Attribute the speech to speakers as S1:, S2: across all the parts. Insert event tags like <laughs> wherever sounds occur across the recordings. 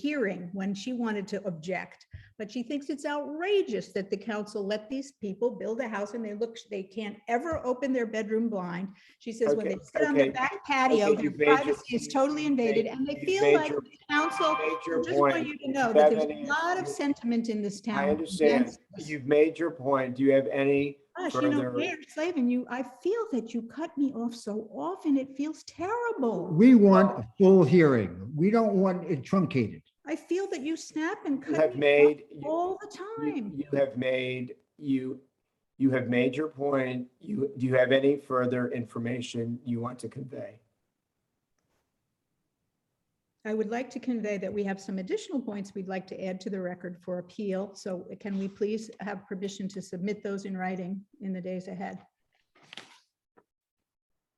S1: hearing when she wanted to object, but she thinks it's outrageous that the council let these people build a house and they look, they can't ever open their bedroom blind. She says when they
S2: Okay,
S1: sit on their
S2: okay,
S1: back patio,
S2: okay,
S1: their
S2: you've made your-
S1: privacy is totally invaded and they
S2: you've
S1: feel
S2: made
S1: like
S2: your-
S1: the council, I
S2: Major
S1: just want
S2: point.
S1: you to know
S2: You
S1: that
S2: have
S1: there's a
S2: any-
S1: lot of sentiment in this town.
S2: I understand.
S1: against us.
S2: You've made your point. Do you have any?
S1: Gosh, you know,
S2: further-
S1: Mayor Slavin, you, I feel that you cut me off so often. It feels terrible.
S3: We want a full hearing. We don't want it truncated.
S1: I feel that you snap and
S2: You
S1: cut
S2: have
S1: me off
S2: made, you
S1: all the time.
S2: you have made, you, you have made your point. You, do you have any further information you want to convey?
S1: I would like to convey that we have some additional points we'd like to add to the record for appeal. So can we please have permission to submit those in writing in the days ahead?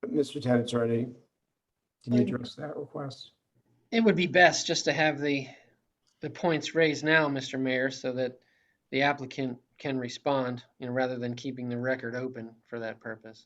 S2: Mr. Town Attorney, can you
S4: Um,
S2: address that request?
S4: It would be best just to have the, the points raised now, Mr. Mayor, so that the applicant can respond, you know, rather than keeping the record open for that purpose.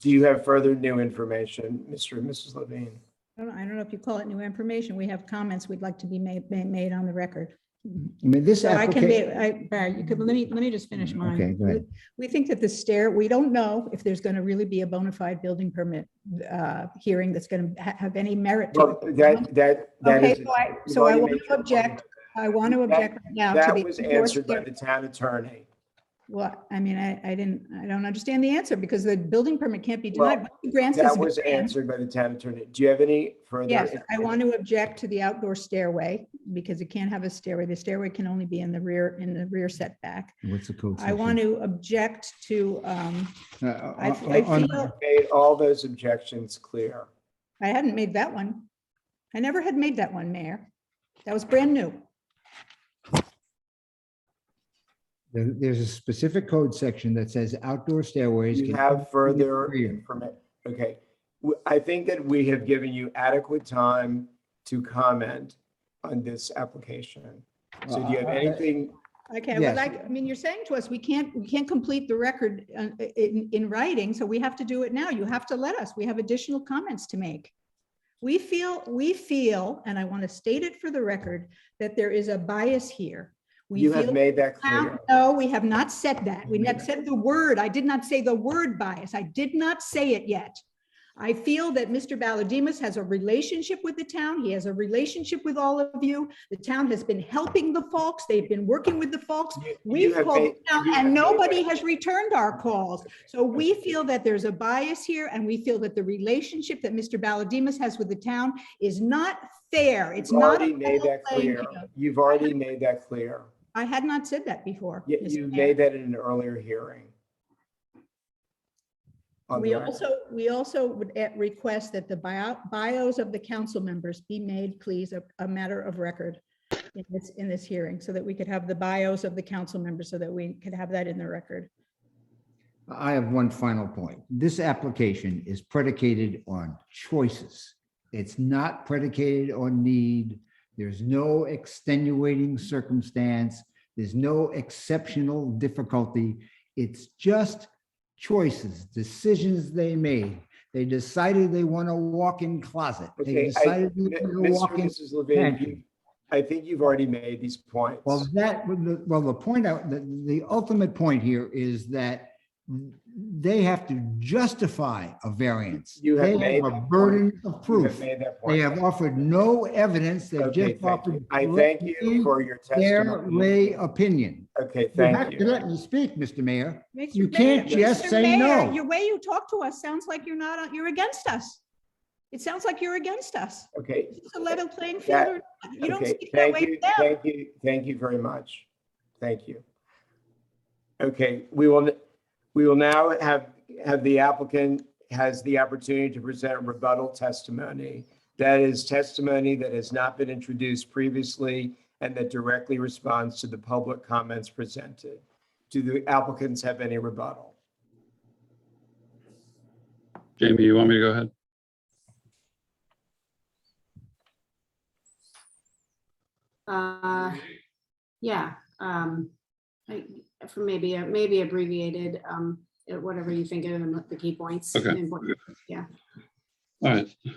S2: Do you have further new information, Mr. and Mrs. Levine?
S1: I don't, I don't know if you call it new information. We have comments we'd like to be made, made, made on the record.
S3: I mean, this
S1: So I can be,
S3: application.
S1: I, Barry, you could, let me, let me just finish
S3: Mm,
S1: mine.
S3: okay, go ahead.
S1: We think that the stair, we don't know if there's going to really be a bona fide building permit uh, hearing that's going to have any merit to
S2: Well,
S1: it.
S2: that, that, that
S1: Okay,
S2: is.
S1: so I-
S2: you've
S1: so I
S2: already
S1: want
S2: made
S1: to
S2: your
S1: object
S2: point.
S1: I want to
S2: that-
S1: object right now to the.
S2: That was
S1: enforced
S2: answered by
S1: hearing.
S2: the town attorney.
S1: Well, I mean, I, I didn't, I don't understand the answer because the building permit can't be
S2: Well,
S1: denied. Once the grant is
S2: That was
S1: granted-
S2: answered by the town attorney. Do you have any further?
S1: Yes, I
S2: information?
S1: want to object to the outdoor stairway because it can't have a stairway. The stairway can only be in the rear, in the rear setback.
S3: What's the code? Uh,
S1: I want to object to, um,
S3: to.
S1: I, I feel,
S2: Made all those objections clear.
S1: I hadn't made that one. I never had made that one, Mayor. That was brand new.
S3: There's a specific code section that says outdoor stairways.
S2: You
S3: can
S2: have
S3: only be
S2: further
S3: rear.
S2: informa- okay. W- I think that we have given you adequate time to comment on this application. So do you have
S3: Uh, uh,
S2: anything,
S1: Okay, well,
S3: Yes.
S1: like, I mean, you're saying to us, we can't, we can't complete the record uh, in, in writing, so we have to do it now. You have to let us. We have additional comments to make. We feel, we feel, and I want to state it for the record, that there is a bias here. We
S2: you have
S1: feel-
S2: made that
S1: Now,
S2: clear.
S1: No, we have not said that. We
S3: Wait a
S1: not said the word. I did not say the word bias. I did not say it yet. I feel that Mr. Baladimas has a relationship with the town. He has a relationship with all of you. The town has been helping the folks. They've been working with the folks.
S2: You- you
S1: We've
S2: have
S1: called
S2: made-
S1: the town
S2: you have
S1: and
S2: made
S1: nobody
S2: that-
S1: has returned our calls. So we feel that there's a bias here and we feel that the relationship that Mr. Baladimas has with the town is not fair. It's
S2: You've
S1: not.
S2: already
S1: a
S2: made
S1: level
S2: that
S1: playing
S2: clear.
S1: field.
S2: You've already made that clear.
S1: I had not said that before.
S2: You,
S1: Mr.
S2: you
S1: Mayor.
S2: made that in an earlier hearing. On
S1: We
S2: the record.
S1: also, we also would eh, request that the bio- bios of the council members be made, please, a, a matter of record in this, in this hearing, so that we could have the bios of the council members, so that we could have that in the record.
S3: I have one final point. This application is predicated on choices. It's not predicated on need. There's no extenuating circumstance. There's no exceptional difficulty. It's just choices, decisions they made. They decided they want a walk-in closet. They
S2: Okay, I,
S3: decided
S2: M-
S3: they want a
S2: Mr. and
S3: walk-in.
S2: Mrs. Levine,
S3: pantry.
S2: you- I think you've already made these points.
S3: Well, that, would- the- well, the point out, the, the ultimate point here is that they have to justify a variance.
S2: You have
S3: They
S2: made
S3: A
S2: that point.
S3: burden of
S2: You
S3: proof.
S2: have made that
S3: They
S2: point.
S3: have offered no evidence. They've
S2: Okay, thank
S3: just
S2: you.
S3: offered.
S2: I thank you for your
S3: Their
S2: testimony.
S3: lay opinion.
S2: Okay,
S3: You have
S2: thank
S3: to
S2: you.
S3: let me speak, Mr. Mayor.
S1: Mr.
S3: You
S1: Mayor-
S3: can't just
S1: Mr.
S3: say
S1: Mayor,
S3: no.
S1: Your way you talk to us sounds like you're not, on- you're against us. It sounds like you're against us.
S2: Okay,
S1: It's a level playing field.
S2: That-
S1: or not.
S2: <laughs>
S1: You don't
S2: okay,
S1: speak that
S2: thank
S1: way to
S2: you,
S1: them.
S2: thank you, thank you very much. Thank you. Okay, we will, n- we will now have, have the applicant has the opportunity to present rebuttal testimony. That is testimony that has not been introduced previously and that directly responds to the public comments presented. Do the applicants have any rebuttal?
S5: Jamie, you want me to go ahead?
S6: Uh Yeah, um, I, for maybe, a- maybe abbreviated, um, whatever you think of them, the key points.
S5: Okay.
S6: main point.
S5: All right.